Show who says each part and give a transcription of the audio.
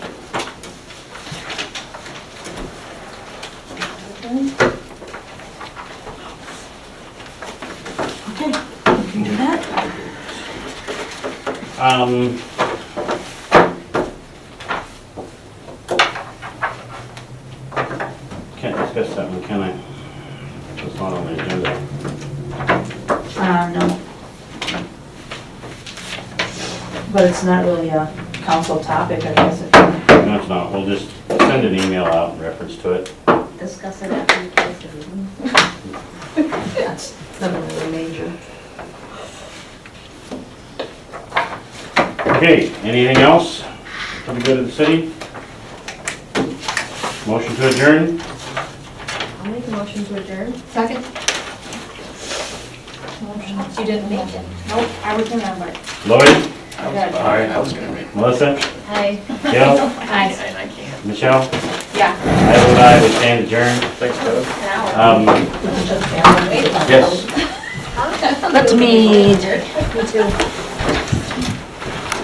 Speaker 1: Um, Can't discuss that one, can I? It's not on the agenda.
Speaker 2: Uh, no. But it's not really a council topic, I guess, if
Speaker 1: No, it's not, we'll just send an email out in reference to it.
Speaker 3: Discuss it after you close the meeting.
Speaker 2: that's nothing really major.
Speaker 1: Okay, anything else for the good of the city? Motion to adjourn?
Speaker 3: I'll make a motion to adjourn.
Speaker 4: Second? You didn't make it.
Speaker 3: Nope, I was remembered.
Speaker 1: Lloyd,
Speaker 5: I was, all right, I was gonna make.
Speaker 1: Melissa,
Speaker 3: Hi.
Speaker 1: Gail,
Speaker 4: Aye.
Speaker 5: And I can't.
Speaker 1: Michelle,
Speaker 4: Yeah.
Speaker 1: I vote aye, we stand adjourned.
Speaker 5: Thanks, Doug.
Speaker 3: Now.
Speaker 1: Um, yes.
Speaker 3: That's me. Me too.